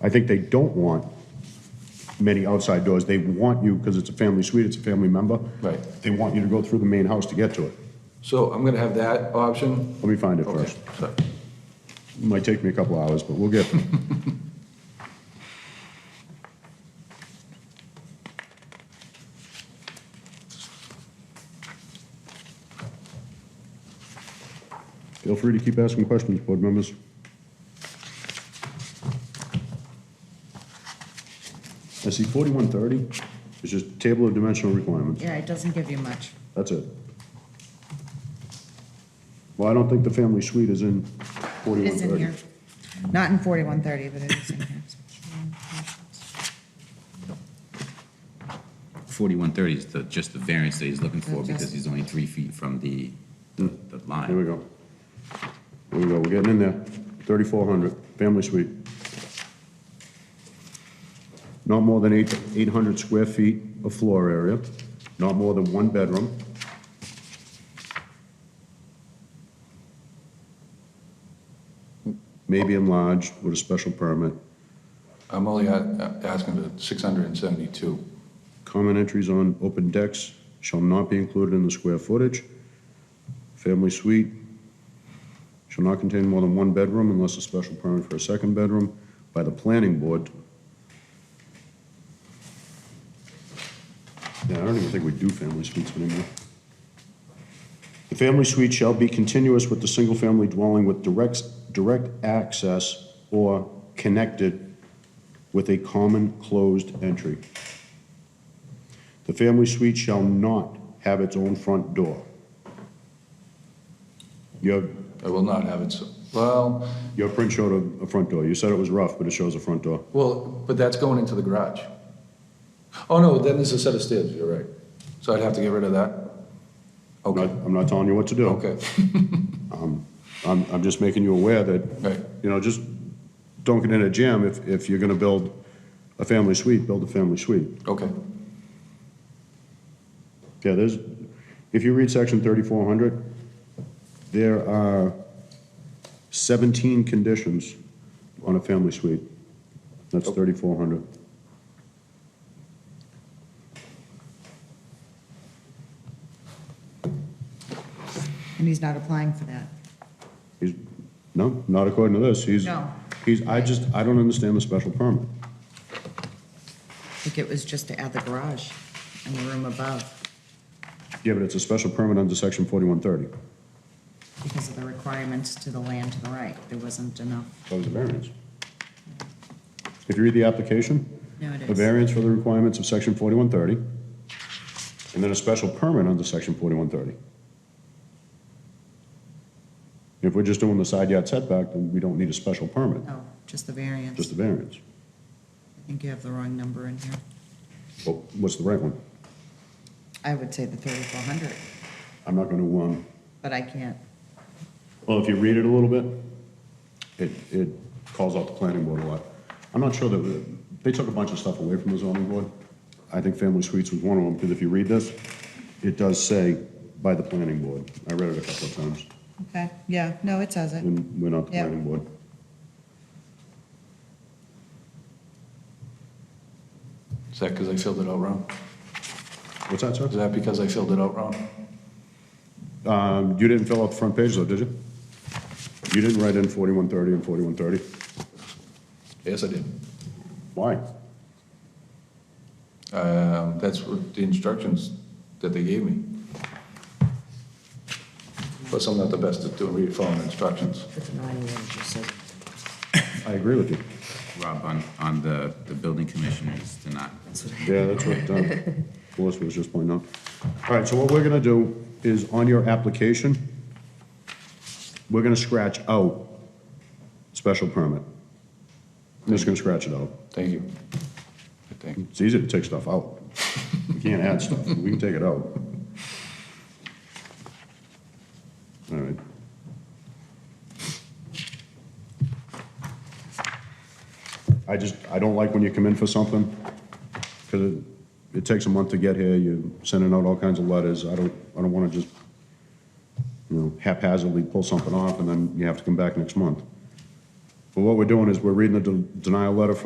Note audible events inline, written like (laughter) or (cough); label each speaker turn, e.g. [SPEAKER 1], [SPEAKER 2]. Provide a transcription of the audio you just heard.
[SPEAKER 1] I think they don't want many outside doors. They want you, because it's a family suite, it's a family member.
[SPEAKER 2] Right.
[SPEAKER 1] They want you to go through the main house to get to it.
[SPEAKER 2] So I'm gonna have that option?
[SPEAKER 1] Let me find it
[SPEAKER 2] Okay,
[SPEAKER 1] first.
[SPEAKER 2] so-
[SPEAKER 1] It Might take me a couple hours, but we'll get there. Feel free to keep asking questions, board members. I see 4130, it's just table of dimensional requirements.
[SPEAKER 3] Yeah, it doesn't give you much.
[SPEAKER 1] That's it. Well, I don't think the family suite is in
[SPEAKER 3] It
[SPEAKER 1] 4130.
[SPEAKER 3] is in here. Not in forty-one thirty, but it is in here.
[SPEAKER 4] 4130 is the, just the variance that he's looking for because he's only three feet from the, the the line.
[SPEAKER 1] Here we go. Here we go, we're getting in there. 3,400, family suite. Not more than eight 800 square feet of floor area, not more than one bedroom. May be enlarged with a special permit.
[SPEAKER 2] I'm only a- asking for 672.
[SPEAKER 1] Common entries on open decks shall not be included in the square footage. Family suite shall not contain more than one bedroom unless a special permit for a second bedroom by the planning board. Yeah, I don't even think we do family suites anymore. The family suite shall be continuous with the single-family dwelling with direct, direct access or connected with a common closed entry. The family suite shall not have its own front door. Your,
[SPEAKER 2] I will not have it, so- well,
[SPEAKER 1] your print showed a, a front door. You said it was rough, but it shows a front door.
[SPEAKER 2] well, but that's going into the garage. Oh, no, then there's a set of stairs, you're right. So I'd have to get rid of that?
[SPEAKER 1] I'm not,
[SPEAKER 2] Okay,
[SPEAKER 1] I'm not telling you what to do.
[SPEAKER 2] okay,
[SPEAKER 1] I'm, I'm just making you aware that,
[SPEAKER 2] right,
[SPEAKER 1] you know, just don't get in a jam if, if you're gonna build a family suite, build a family suite.
[SPEAKER 2] okay.
[SPEAKER 1] Yeah, there's, if you read section thirty-four hundred, there are seventeen conditions on a family suite. That's thirty-four hundred.
[SPEAKER 3] And he's not applying for that.
[SPEAKER 1] He's, no, not according to this, he's.
[SPEAKER 3] No.
[SPEAKER 1] He's, I just, I don't understand the special permit.
[SPEAKER 3] I think it was just to add the garage and the room above
[SPEAKER 1] Yeah, but it's a special permit under section forty-one thirty.
[SPEAKER 3] because of the requirements to the land to the right. There wasn't enough.
[SPEAKER 1] That was a variance. If you read the application.
[SPEAKER 3] No, it
[SPEAKER 1] A
[SPEAKER 3] is.
[SPEAKER 1] variance for the requirements of section forty-one thirty, and then a special permit under section forty-one thirty. If we're just doing the side yard setback, then we don't need a special permit,
[SPEAKER 3] No, just the
[SPEAKER 1] just
[SPEAKER 3] variance.
[SPEAKER 1] a
[SPEAKER 3] I
[SPEAKER 1] variance.
[SPEAKER 3] think you have the wrong number in here.
[SPEAKER 1] Well, what's the right one?
[SPEAKER 3] I would say the thirty-four hundred,
[SPEAKER 1] I'm not gonna, um,
[SPEAKER 3] but I can't.
[SPEAKER 1] Well, if you read it a little bit, it, it calls out the planning board a lot. I'm not sure that, they took a bunch of stuff away from the zoning board. I think family suites was one of them, because if you read this, it does say by the planning board. I read it a couple of times,
[SPEAKER 3] Okay, yeah, no, it says it.
[SPEAKER 1] and we're not the
[SPEAKER 3] Yeah.
[SPEAKER 1] planning board.
[SPEAKER 2] Is that because I filled it out wrong?
[SPEAKER 1] What's that,
[SPEAKER 2] Is
[SPEAKER 1] sir?
[SPEAKER 2] that because I filled it out wrong?
[SPEAKER 1] Um, you didn't fill out the front page though, did you? You didn't write in forty-one thirty and forty-one thirty.
[SPEAKER 2] Yes, I did.
[SPEAKER 1] Why?
[SPEAKER 2] Um, That's what the instructions that they gave me. Plus, I'm not the best at doing, re- following instructions.
[SPEAKER 1] I agree with you.
[SPEAKER 4] Rob, on, on the, the building commissioners to not,
[SPEAKER 1] Yeah, that's what uh, (laughs) Melissa was just pointing out. All right, so what we're gonna do is on your application, we're gonna scratch out special permit. I'm just gonna scratch it out.
[SPEAKER 2] Thank you. I think.
[SPEAKER 1] It's easy to take stuff out. You can't add stuff, we can take it out. All right. I just, I don't like when you come in for something, because it, it takes a month to get here, you're sending out all kinds of letters, I don't, I don't wanna just, you know, haphazardly pull something off, and then you have to come back next month. But what we're doing is, we're reading the de- denial letter from